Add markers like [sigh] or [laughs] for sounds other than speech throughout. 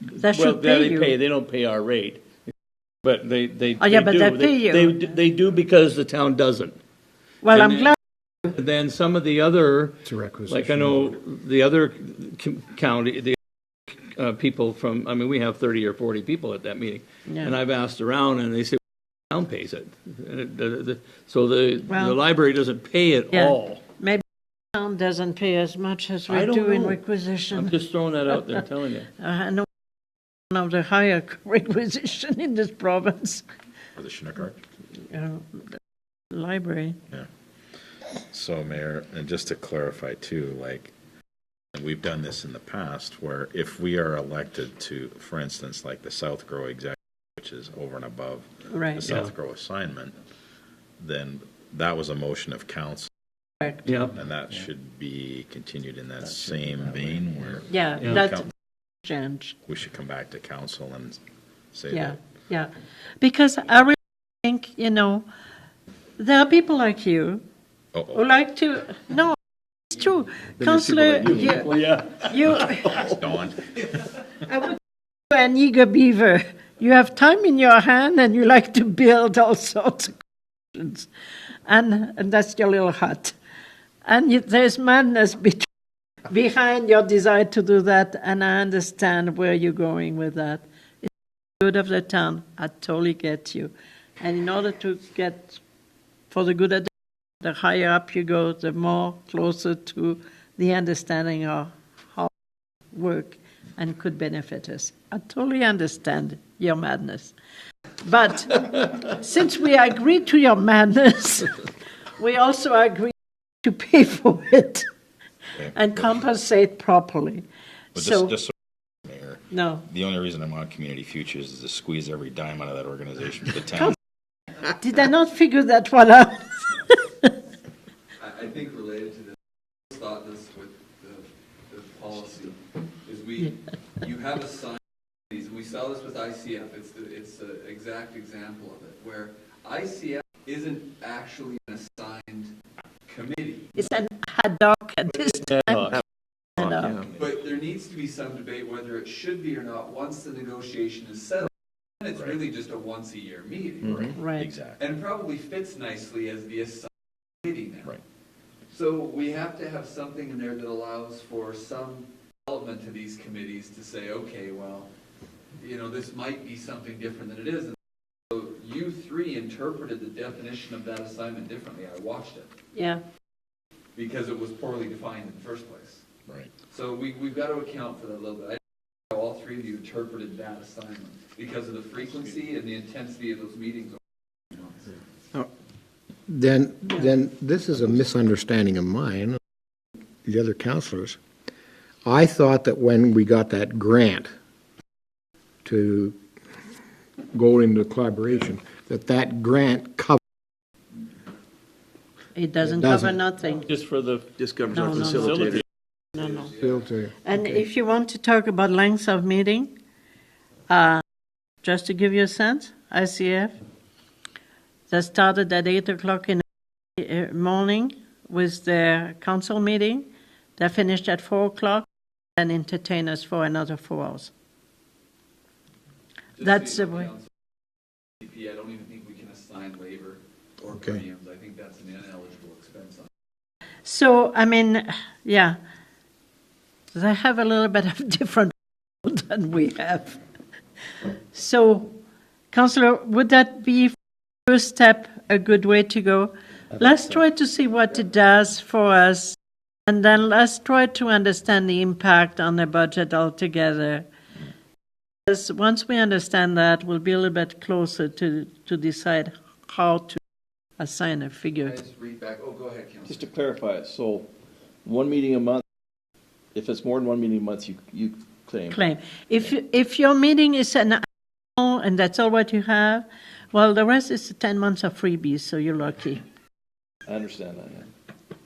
That Well, should yeah, pay they pay, you. they don't pay our rate, but they, they. Oh, yeah, they but do. they pay you. They, they do because the town doesn't. Well, and I'm then- glad, Then some of the other, a requisition like I know the other com- county, the uh, people from, I mean, we have 30 or 40 people at that meeting. Yeah. And I've asked around and they say, town pays it. And it- the- the- So the, the Well- library doesn't pay it Yeah. all. [laughs] maybe town doesn't pay as much as I we don't do in know. I'm requisition. just throwing that out there, telling you. Uh, I know one of the higher [laughs] requisition in this province, For the Shinnecock. uh, library. So Mayor, and just to clarify too, like, and we've done this in the past where if we are elected to, for instance, like the South Grow executive, which is over and above the Right, South Grow assignment, then that was a motion of council correct. Yeah. and that should be continued in that same vein where Yeah, Yeah. that's change. we should come back to council and say Yeah, that. yeah. Because I really think, you know, there are people like you who Oh, like to, no, it's true. Councillor, you, Yeah. [laughs] you oh, Dawn. are an eager beaver. You have time in your hand and you like to build all sorts of questions. And, and that's your little hut. And you, there's madness between, behind your desire to do that, and I understand where you're going with that. good of the town, I totally get you. And in order to get for the good of the, the higher up you go, the more closer to the understanding of how work and could benefit us. I totally understand your madness. But [laughs] since we agree to your madness, we also agree to pay for it and compensate properly. But So- just, just, so- Mayor, No, the only reason I'm on Community Futures is to squeeze every dime out of that organization for the town. did I not figure that one out? I, I think related to this, I thought this with the, the policy, is we, you have assigned, these. we saw this with ICF, it's, the it's the exact example of it, where ICF isn't actually an assigned committee, It's an ad hoc at this time. Uh, Ad hoc. but there needs to be some debate whether it should be or not, once the negotiation is settled, and it's really just a once-a-year meeting. Right. Exactly. And probably fits nicely as the assigned committee now. Right. So we have to have something in there that allows for some development to these committees to say, okay, well, you know, this might be something different than it is. And So you three interpreted the definition of that assignment differently. I watched it Yeah, because it was poorly defined in the first place. Right. So we, we've got to account for that a little bit. I don't know how all three of you interpreted that assignment because of the frequency and the intensity of those meetings. Then, then this is a misunderstanding of mine, the other counselors. I thought that when we got that grant to go into collaboration, that that grant covered. it doesn't It cover doesn't. nothing. Just for the Just covers No, our no, no. facilitator. No, no. filter. And if you want to talk about lengths of meeting, uh, just to give you a sense, ICF, that started at 8 o'clock in the uh, morning with their council meeting. They finished at 4 o'clock and entertained us for another four hours. Just so That's you the know, way. Council, CP, I don't even think we can assign labor or Okay. premiums. I think that's an ineligible expense. So, I mean, yeah, they have a little bit of [laughs] different than we have. So, Councillor, would that be first step a good way to go? Let's try to see what it does for us, and then let's try to understand the impact on the budget altogether. Because once we understand that, we'll be a little bit closer to, to decide how to assign a Can figure. I just read back? Oh, go ahead, Just Council. to clarify, it, so one meeting a month, if it's more than one meeting a month, you, you claim. claim. If, you- if your meeting is an hour and that's all what you have, well, the rest is 10 months of freebies, so you're lucky. I understand that, yeah.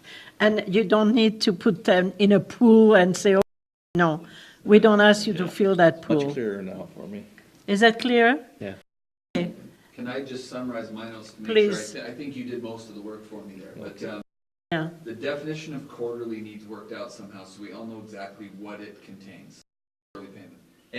And you don't need to put them in a pool and say, oh, no, we don't ask you to fill that Much pool. clearer now for me. Is that clear? Can I just summarize my notes to make Please. sure? I thi- I think you did most of the work for me there, but um, Yeah, the definition of quarterly needs worked out somehow, so we all know exactly what it contains. Quarterly payment.